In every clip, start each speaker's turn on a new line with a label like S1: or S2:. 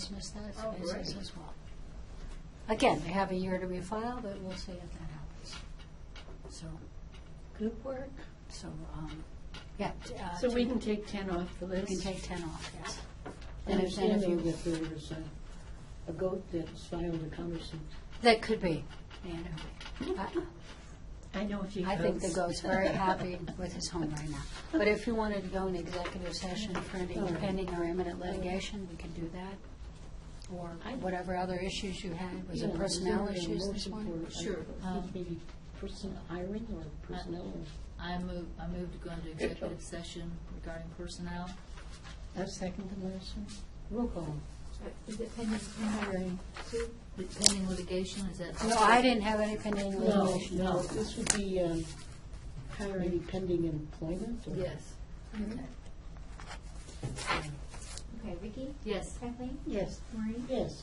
S1: dismiss that
S2: Oh,
S1: as business
S2: great.
S1: as well. Again, they have a year to refile, but we'll see if that happens. So, group work, so, um, yeah. t- uh,
S2: So we
S1: t-
S2: can take 10 off the
S1: We can
S2: list.
S1: take ten off, yes.
S2: And
S1: And if, and if
S2: Understanding
S1: you,
S2: that there was a- a goat that's filed a cumbersome.
S1: that could be, you know. I-
S2: I know a few
S1: I think the
S2: goats.
S1: goat's very happy with his home right now. But if you wanted to go in executive session for any
S2: All right.
S1: pending or imminent litigation, we could do that. Or
S2: I-
S1: whatever other issues you had, was
S2: Yeah,
S1: it
S2: is
S1: personnel
S2: there a
S1: issues this
S2: motion
S1: morning?
S2: for, uh,
S3: Sure.
S2: I think Maybe person, hiring or personnel, or-
S3: I move, I move to go into executive session regarding personnel.
S2: I second the motion. Roll call.
S3: Is it pending hiring? Pending litigation, is that?
S1: No, I didn't have any pending
S2: No,
S1: litigation.
S2: no, this would be um, maybe pending employment or?
S3: Yes. Okay.
S4: Okay, Vicki?
S3: Yes.
S4: Kathleen?
S2: Yes.
S4: Maureen?
S2: Yes.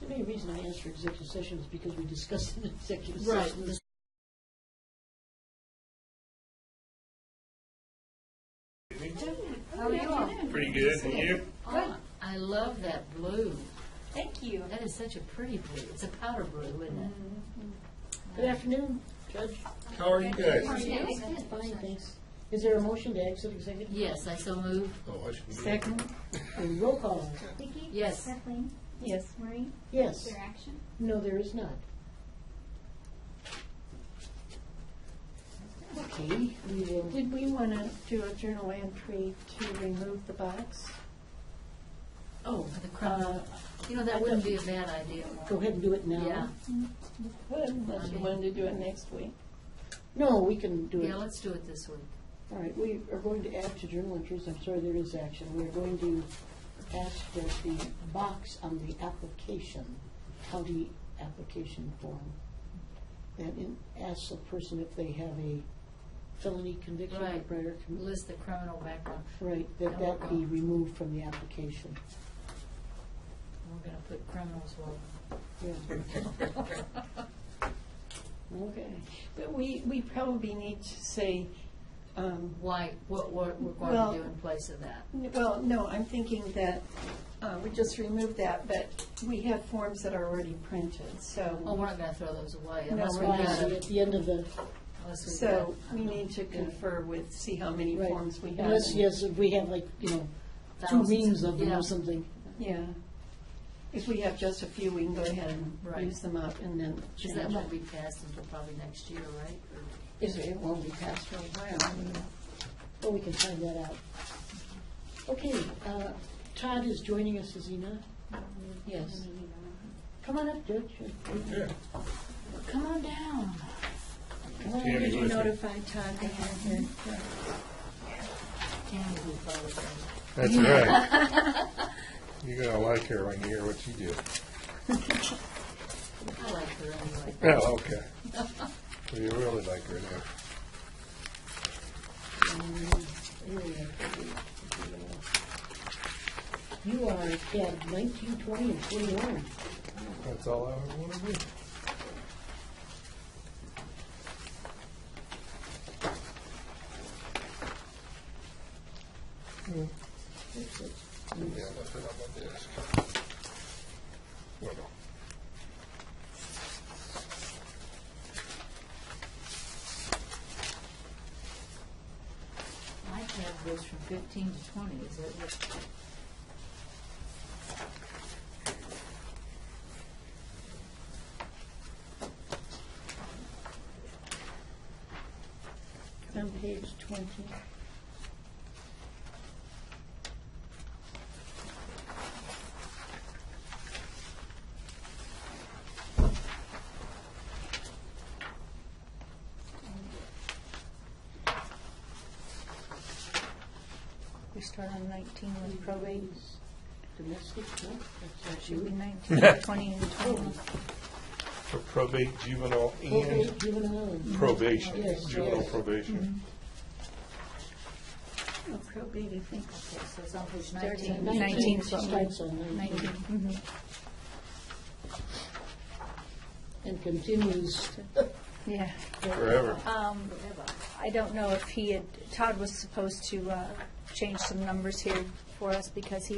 S2: The main reason I asked for executive session is because we discussed in executive
S3: Right.
S2: session. this
S1: Oh, you are?
S5: Pretty good, and you?
S3: Ah, I love that blue.
S4: Thank you.
S3: That is such a pretty blue. It's a powder blue, isn't it?
S2: Good afternoon, Judge.
S5: How are you guys?
S2: Fine, thanks. Is there a motion to exit executive?
S3: Yes, I so move.
S5: Oh, I should be.
S2: And roll call.
S4: Vicki?
S3: Yes.
S4: Kathleen?
S2: Yes.
S4: Maureen?
S2: Yes.
S4: Your action?
S2: No, there is not. Okay, we will.
S6: Did we want to do a journal entry to remove the box?
S2: Oh,
S3: The
S2: uh,
S3: crowd. You know, that wouldn't be a bad idea.
S2: go ahead and do it now.
S3: Yeah.
S6: Could, unless you Um, wanted to do it next week.
S2: No, we can do it.
S3: Yeah, let's do it this week.
S2: All right, we are going to add to journal entries, I'm sorry, there is action. We are going to ask that the box on the application, county application form, that in- asks a person if they have a felony conviction or
S3: Right.
S2: prior com-
S3: List the criminal background.
S2: Right, that that be removed from the application.
S3: We're going to put criminals well.
S2: Yeah. Okay.
S6: But we, we probably need to say, um,
S3: Why, what we're we're
S6: Well-
S3: going to do in place of that.
S6: n- well, no, I'm thinking that uh, we just remove that, but we have forms that are already printed,
S3: Oh,
S6: so,
S3: we're not going to throw those away
S6: No,
S3: unless
S6: we're
S3: we
S2: Fine,
S3: got
S2: so
S3: it.
S2: at the end of the,
S3: Unless we
S6: so
S3: got
S6: we need to confer with, see how many
S2: right.
S6: forms we have.
S2: Unless, yes, if we have like, you know, two
S3: thousands.
S2: reams of them
S3: Yeah.
S2: or something.
S6: Yeah. If we have just a few, we can go ahead and
S3: Right.
S6: use them up and then
S3: Because
S6: change
S3: that
S6: them.
S3: won't be passed until probably next year, right? Or-
S2: Is it, it won't be passed for a while. I mean, Well, we can find that out. Okay, uh, Todd is joining us, is he not? Yes. Come on up, Judge.
S5: Yeah.
S3: Come on down.
S2: Come on.
S5: Yeah,
S6: Did you
S5: Elizabeth.
S6: notify Todd that you're here?
S3: Tammy will follow us.
S5: That's right. You're gonna like her when you hear what she did.
S3: I like her anyway.
S5: Oh, okay. Well, you really like her now.
S2: You are at nineteen, twenty, and twenty-one.
S5: That's all I ever wanna be. Hmm. Yeah, nothing on my desk. Well, no.
S3: My tab goes from fifteen to twenty, is that what?
S6: On page 20. We start on 19 with probate.
S2: Domestic, no? That's not
S6: Should be
S2: you.
S6: 19, 20, and 21.
S5: For probate, juvenile,
S2: Okay,
S5: and
S2: juvenile. and-
S5: probation,
S2: Yes,
S5: juvenile
S2: yes. Mm-hmm.
S5: probation.
S6: Oh, probate, I think.
S3: Okay, so it's on page
S6: Starts at
S3: nineteen.
S6: 19,
S2: She
S6: so-
S2: Starts on nineteen.
S6: 19. mhm.
S2: and continues
S7: Yeah,
S5: Forever.
S7: um, I don't know if he had, Todd was supposed to, uh, change some numbers here for us because he